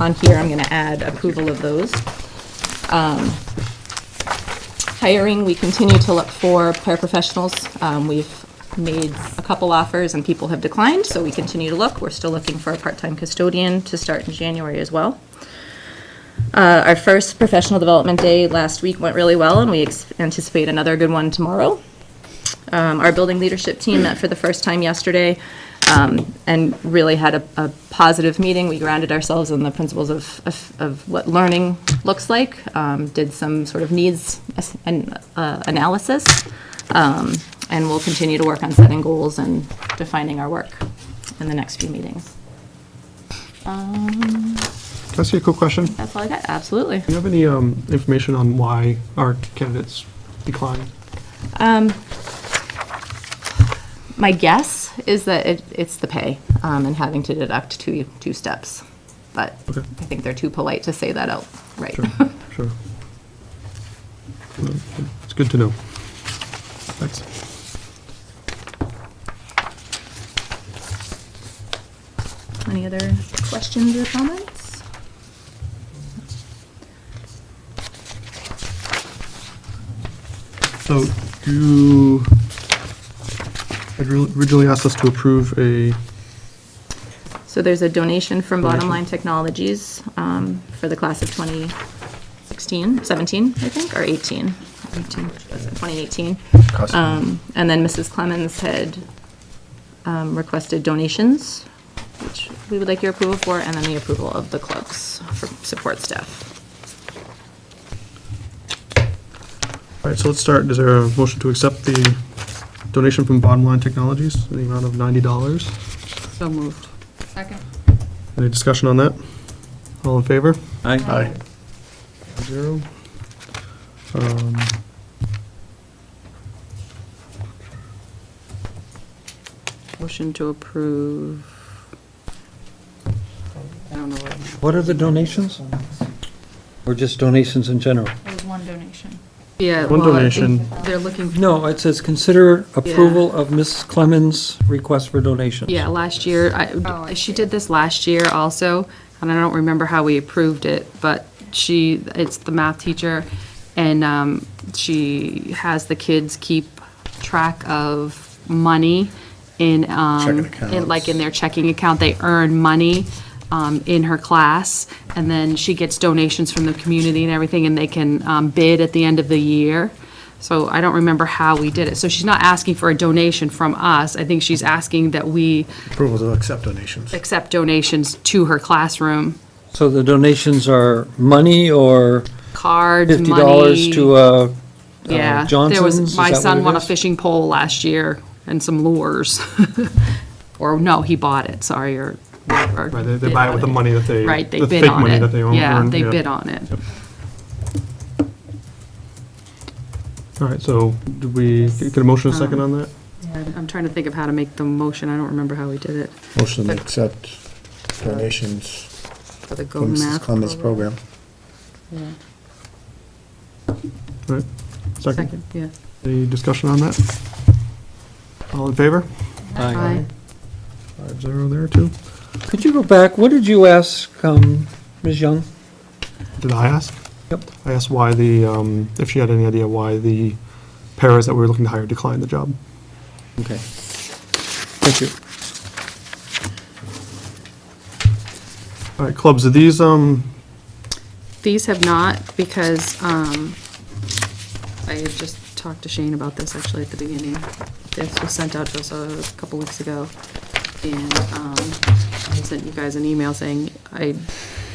on here, I'm going to add approval of those. Um, Hiring, we continue to look for paraprofessionals. Um, We've made a couple offers and people have declined, so we continue to look. We're still looking for a part-time custodian to start in January as well. Uh, Our first professional development day last week went really well, and we ex- anticipate another good one tomorrow. Um, Our building leadership team met for the first time yesterday um, and really had a- a positive meeting. We grounded ourselves in the principles of- of of what learning looks like, um, did some sort of needs as- an- uh, analysis, um, and we'll continue to work on setting goals and defining our work in the next few meetings. Um, Can I ask you a quick question? Do That's all I got, absolutely. you have any um, information on why our candidates declined? My guess is that it, it's the pay um, and having to deduct two, two steps. But Okay. I think they're too polite to say that out, right? Sure, sure. It's good to know. Thanks. Any other questions or comments? So you had originally asked us to approve a, So there's a donation from Bottom Donation. Line Technologies um, for the class of 2016, 17, I think, or 18. 18. Was it 2018? Um, And then Mrs. Clemens had um, requested donations, which we would like your approval for, and then the approval of the clubs for support staff. all right, so let's start. Is there a motion to accept the donation from Bottom Line Technologies in the amount of $90? So moved. Second. Any discussion on that? All in favor? Aye. Zero. Um, Motion to approve. I don't know. what I'm- What are the donations? Or just donations in general? There was one donation. Yeah. One well, I think donation. They're looking, No, it says consider approval of Mrs. Clemens' request for donation. yeah, last year, Oh, I I, she did this last year also, and I don't remember how we approved it, but she, it's the math teacher, and um, she has the kids keep track of money in, um, Checking in- like in their checking account, they earn money um, in her class, and then she gets donations from the community and everything, and they can um, bid at the end of the year. So I don't remember how we did it. So she's not asking for a donation from us. I think she's asking that we Approval to accept donations. accept donations to her classroom, So the donations are money or cards, money. fifty dollars to, uh, Yeah, there Johnson's? was, Is my that what son it won a is? fishing pole last year and some lures. Or, no, he bought it, sorry, or. or Right, they- they bid buy it on with the money that they. Right, they the bid fake on money it. that they own- Yeah, earn, they bid on it. All right, so did we get a motion and a Um, second on that? I'm trying to think of how to make the motion, I don't remember how we did it. Motion to accept donations For the Go from Mrs. Math Clemens program. program. All right, second. Second, yeah. Any discussion on that? All in favor? Aye. Five zero there, too. Could you go back? What did you ask, um, Ms. Young? Did I ask? Yep. I asked why the, um, if she had any idea why the paras that we were looking to hire declined the job. Okay. Thank you. All right, clubs, are these, um, These have not, because um, I had just talked to Shane about this actually at the beginning. This was sent out to us a couple weeks ago, and um, I sent you guys an email saying I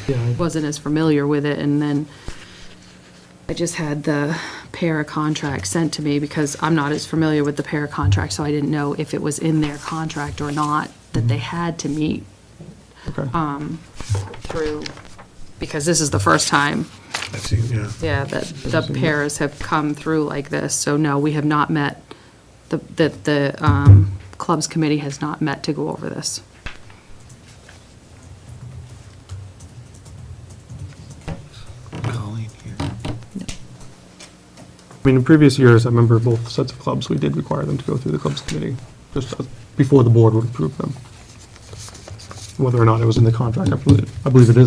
yeah, I- wasn't as familiar with it, and then I just had the para contract sent to me because I'm not as familiar with the para contract, so I didn't know if it was in their contract or not, that they Mm-hmm. had to meet okay. through, because this is the first time I see, yeah. yeah, that the pairs have come through like this, so no, we have not met, the, that the um, clubs committee has not met to go over this. Colleen here. I mean, in previous years, I remember both sets of clubs, we did require them to go through the clubs committee, just uh, before the board would approve them. Whether or not it was in the contract, I believe, I believe it is